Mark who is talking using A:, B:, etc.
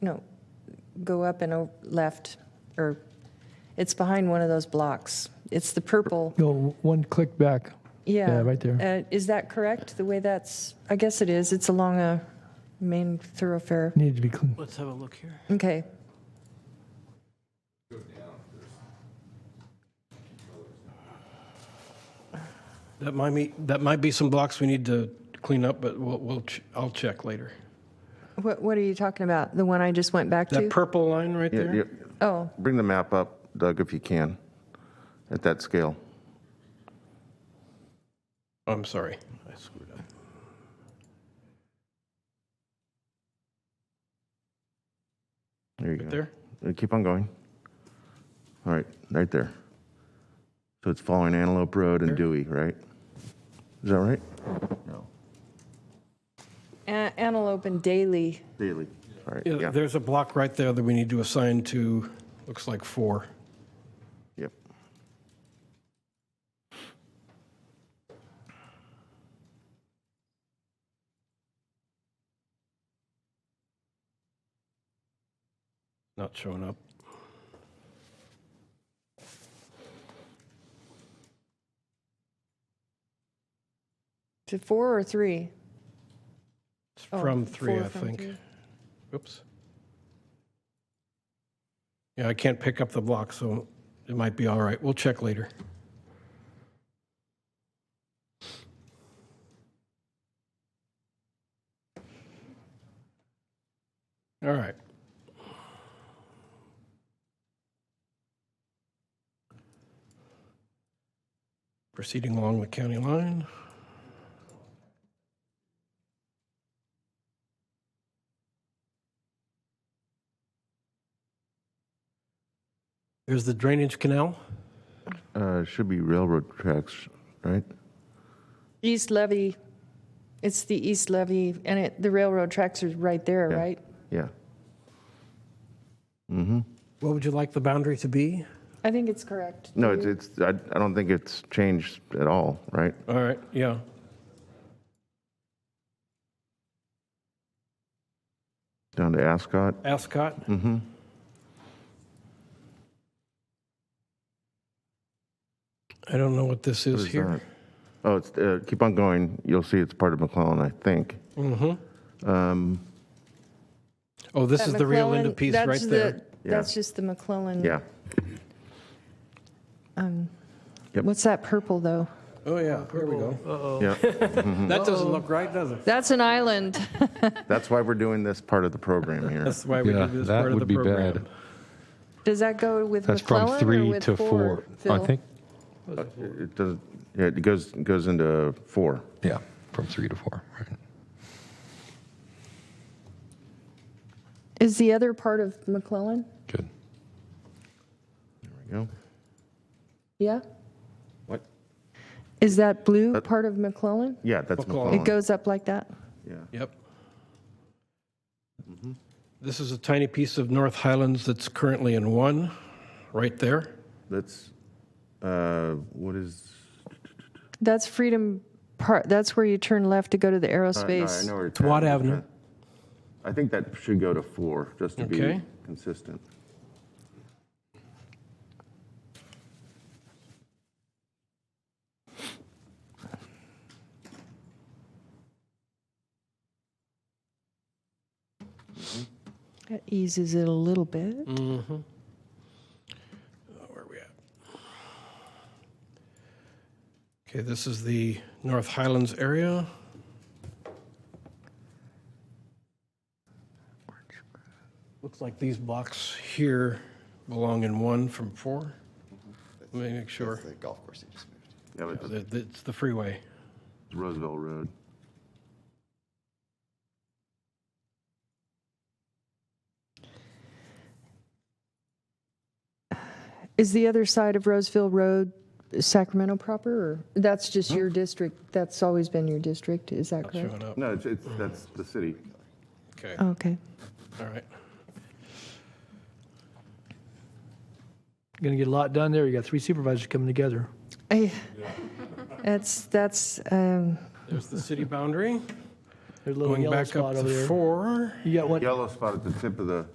A: No, go up and o- left, or, it's behind one of those blocks. It's the purple,
B: Go one click back.
A: yeah.
B: Yeah, right there.
A: Uh, Is that correct, the way that's, I guess it is, it's along a main thoroughfare.
B: Needed to be clean.
C: Let's have a look here.
A: Okay,
C: That might be, that might be some blocks we need to clean up, but we'll, we'll, ch- I'll check later.
A: what, what are you talking about? The one I just went back
C: That
A: to?
C: purple line right
D: Yeah,
C: there?
D: yeah.
A: Oh,
D: Bring the map up, Doug, if you can, at that scale.
C: I'm sorry, I screwed up.
D: There you
C: Right
D: go.
C: there?
D: Uh, Keep on going. All right, right there. So it's following Antelope Road and Dewey, right? Is that right? No.
A: A- Antelope and Daly,
D: Daily. All right,
C: Yeah,
D: yeah,
C: there's a block right there that we need to assign to, looks like four.
D: yep.
C: Not showing up.
A: to four or three?
C: It's
A: Oh,
C: from three,
A: four
C: I
A: from
C: think.
A: three.
C: Oops. Yeah, I can't pick up the block, so it might be all right. We'll check later. All right. Proceeding along the county line. There's the drainage canal.
D: Uh, Should be railroad tracks, right?
A: East Levy, it's the East Levy, and it, the railroad tracks are right there,
D: Yeah.
A: right?
D: Yeah. Mm-hmm.
C: What would you like the boundary to be?
A: I think it's correct.
D: No, it's, it's. I I don't think it's changed at all, right?
C: All right, yeah.
D: Down to Ascot?
C: Ascot?
D: Mm-hmm.
C: I don't know what this is here.
D: Oh, it's, uh, keep on going. You'll see it's part of McClellan, I think.
C: Mm-hmm.
D: Um,
C: Oh, this is the real end of piece right
A: that's
C: there.
A: the-
D: Yeah.
A: That's just the McClellan.
D: Yeah. Yep.
A: What's that purple, though?
C: Oh, yeah, here we go.
D: Yeah.
C: That doesn't look right, does it?
A: That's an island.
D: That's why we're doing this part of the program here.
C: That's why we
E: Yeah,
C: do this
E: that
C: part of the
E: would be bad.
C: program.
A: Does that go with
E: That's from
A: McClellan or
E: three
A: with
E: to four, I
A: Phil?
E: think.
D: It does, yeah, it goes, it goes into four.
E: Yeah, from three to four. Right.
A: Is the other part of McClellan?
E: Good.
D: There we go.
A: Yeah?
D: What?
A: Is that blue
D: That-
A: part of McClellan?
D: Yeah, that's
C: McClellan.
A: It
D: McClellan.
A: goes up like that?
D: Yeah.
C: Yep. Mm-hmm. This is a tiny piece of North Highlands that's currently in one, right there.
D: That's, uh, what is?
A: That's Freedom Park, that's where you turn left to go to the
D: uh, no, I
A: aerospace.
D: know where it's
C: Watt
D: at.
C: Avenue.
D: I think that should go to four, just to be
C: Okay.
D: consistent.
A: That eases it a little bit.
C: Mm. Where are we at? Okay, this is the North Highlands area. Looks like these blocks here belong in one from four. Let me make sure.
F: The golf course they just moved.
D: Yeah, but
C: Th- th- It's the freeway.
D: that's Roosevelt Road.
A: Is the other side of Roseville Road Sacramento proper, or that's just your district? That's always been your district, is that
C: Not
A: correct?
C: showing up.
D: No, it's, it's, that's the city.
C: Okay,
A: Okay.
C: all right.
B: Going to get a lot done there. You got three supervisors coming together.
A: I- That's, that's, um,
C: There's the city boundary,
B: There's a little
C: going
B: yellow
C: back up
B: spot over
C: to
B: there.
C: four.
B: You got one,
D: Yellow spot at the tip of the